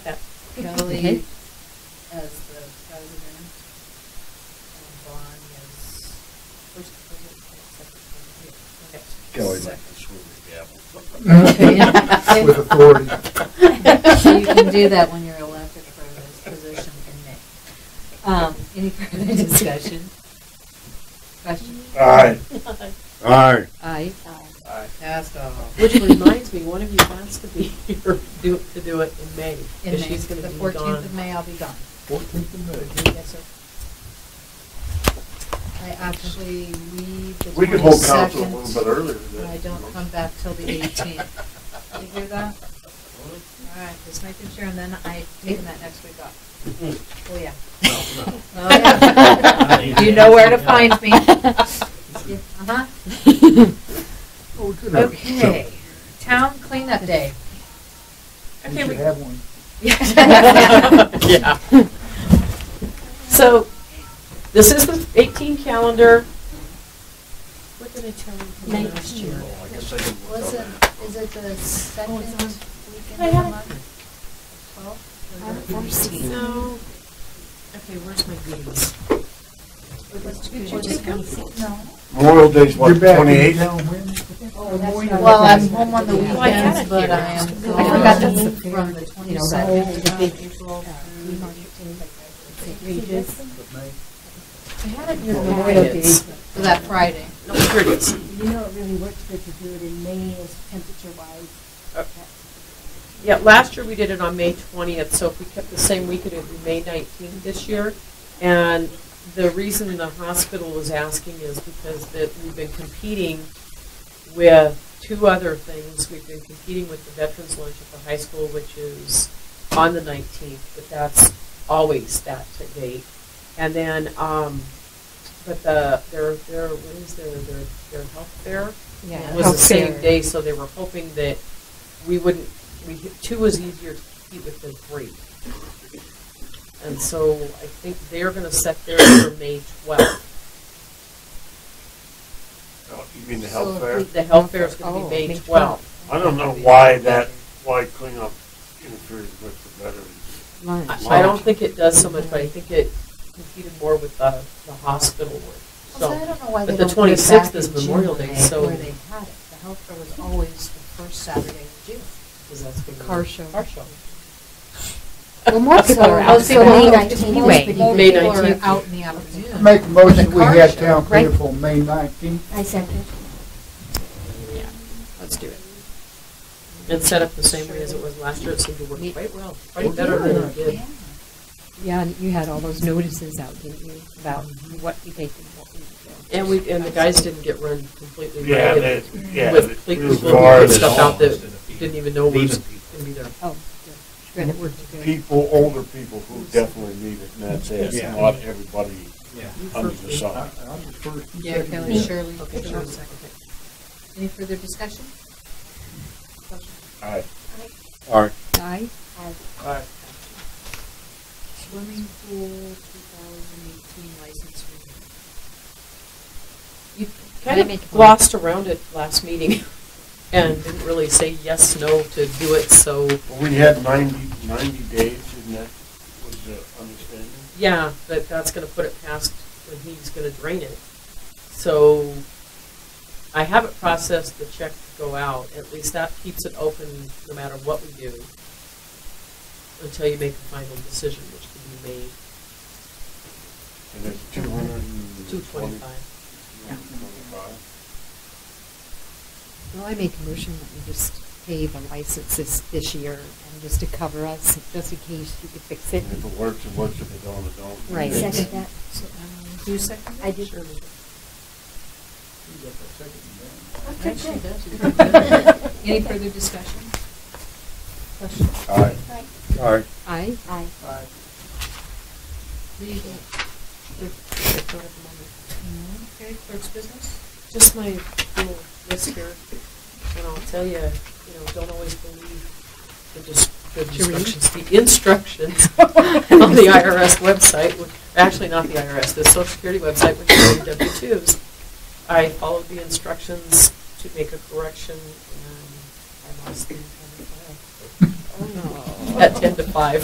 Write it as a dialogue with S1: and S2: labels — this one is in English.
S1: Okay.
S2: Bailey as the president, and Vaughn as first president, and
S3: Kelly
S2: secretary.
S3: might
S2: Second. Okay.
S3: just swing the gavel. With authority.
S2: So you can do that when you're elected for this position in May. Um, Any further discussion? Question?
S3: Aye. Aye.
S2: Aye.
S3: Aye.
S2: Passed all.
S4: Which reminds me, one of you has to be here do, to do it in May,
S2: In
S4: because
S2: May,
S4: she's gonna
S2: the
S4: be
S2: fourteenth
S4: gone.
S2: of May, I'll be gone.
S3: Fourteenth of May.
S2: Yes, sir. I actually leave the twenty-second.
S3: We could hold council a little bit earlier than
S2: and I don't come back till the eighteenth. You hear that? All right, just making sure, and then I take that next week off. Oh, yeah. Oh, yeah. You know where to find me. Yeah, Uh-huh.
S3: Oh, good.
S2: Okay, town cleanup day.
S3: We should have one.
S4: Yeah. So, this is the eighteen calendar. What did I tell you from
S2: Nineteen.
S4: last year?
S3: Well, I guess I can work
S2: Was
S3: on
S2: it,
S3: that.
S2: is it the second weekend of
S4: I
S2: the
S4: have it.
S2: month? Twelve?
S4: No. Okay, where's my goodies?
S2: No.
S3: Memorial Day's what,
S5: You're back in
S3: twenty-eighth?
S5: town when?
S2: Well, I'm home on the
S4: Well, I had
S2: weekends,
S4: it
S2: but
S4: here.
S2: I am.
S4: I
S2: gone
S4: forgot that's
S1: the
S2: From the
S1: you know, that-
S2: twenty-seventh
S1: the
S2: to
S1: big,
S2: April.
S1: Regis.
S3: Of May?
S4: I had it
S1: Your
S4: in
S1: Memorial Day.
S4: Fridays.
S2: So that Friday.
S4: No, here it is.
S1: You know, it really works good to do it in May as temperature wise.
S4: Uh, Yeah, last year we did it on May 20th, so if we kept the same week, it would be May 19th this year. And the reason the hospital was asking is because that we've been competing with two other things. We've been competing with the veterans lunch at the high school, which is on the 19th, but that's always that to date. And then, um, but the, their, their, what is their, their, their health fair?
S2: Yeah.
S4: was the same day, so they were hoping that we wouldn't, we, two was easier to compete with than three. And so I think they're gonna set theirs for May twelfth.
S3: Oh, You mean the
S2: So
S3: health
S2: if
S3: fair?
S2: we-
S4: The health fair is gonna
S1: Oh,
S4: be May
S1: May
S4: twelfth.
S3: I don't know why that, why cleanup interferes with the veterans.
S4: I I don't think it does so much, but I think it competed more with the, the hospital one.
S2: Oh, So I
S4: So,
S2: don't know why
S4: but
S2: they
S4: the
S2: don't put it
S4: 26th
S2: back
S4: is
S2: in
S4: Memorial
S2: June
S4: Day,
S2: where they-
S4: so-
S2: Where they had it. The health fair was always the first Saturday of June.
S4: because that's gonna be.
S1: Car show.
S4: Car show.
S1: Well, more people are
S2: So-
S1: out, so
S2: so
S1: May
S2: most-
S1: nineteenth anyway.
S2: Most
S4: May
S2: people are
S4: 19th.
S2: out in the afternoon.
S5: Make a
S2: For the
S5: motion, we
S2: car
S5: had
S2: show,
S5: town
S1: right?
S5: cleanup on May nineteenth.
S1: I second.
S4: Yeah, let's do it. And set up the same way as it was last year, it seemed to work quite well, quite better than it did.
S2: Yeah.
S1: Yeah, and you had all those notices out, didn't you, about what you take and what you don't.
S4: And we, and the guys didn't get run completely
S3: Yeah,
S4: ragged.
S3: that, yeah.
S4: with
S3: that-
S4: fleet
S3: it was
S4: people and
S3: garbage.
S4: stuff out that didn't even know was
S6: Leaving people.
S4: gonna be there.
S1: Oh, good. Good, it worked good.
S3: People, older people who definitely need it, and that's it,
S6: Yeah.
S3: not everybody
S6: Yeah.
S3: under the
S5: I, I
S3: sun.
S5: was first. and
S2: Yeah,
S5: second.
S2: Kelly Shirley.
S4: Okay, sure.
S2: Any further discussion? Question?
S3: Aye. All right.
S1: Aye.
S2: Swimming pool 2018 license renewal.
S4: You
S1: Can I
S4: kind
S1: make a
S4: of glossed around it last meeting and didn't really say yes, no to do it, so,
S3: Well, We had 90 90 days, and that was the understanding.
S4: yeah, but that's gonna put it past when he's gonna drain it. So I haven't processed the check to go out, at least that keeps it open no matter what we do until you make a final decision, which can be made
S3: And it's 220.
S4: two twenty-five.
S1: Well, I make a motion that we just pay the licenses this year and just to cover us, just in case you could fix it.
S3: And if it works, it works, if it don't, it don't.
S1: Right.
S3: It's-
S1: Second
S2: that. So, um, Do you second that?
S1: I did.
S2: Shirley did.
S5: You got the second one.
S2: Okay, she does. Any further discussion? Question?
S3: Aye. Aye.
S1: Aye. Aye.
S5: Aye.
S2: Legal. Okay, clerk's business?
S4: Just my little list here, and I'll tell you, you know, don't always believe the dis- the
S1: To read?
S4: instructions, the instructions on the IRS website, which- actually not the IRS, the Social Security website, which is the W-2s. I followed the instructions to make a correction,
S2: Oh,
S4: and I lost the entire file. At 10 to 5.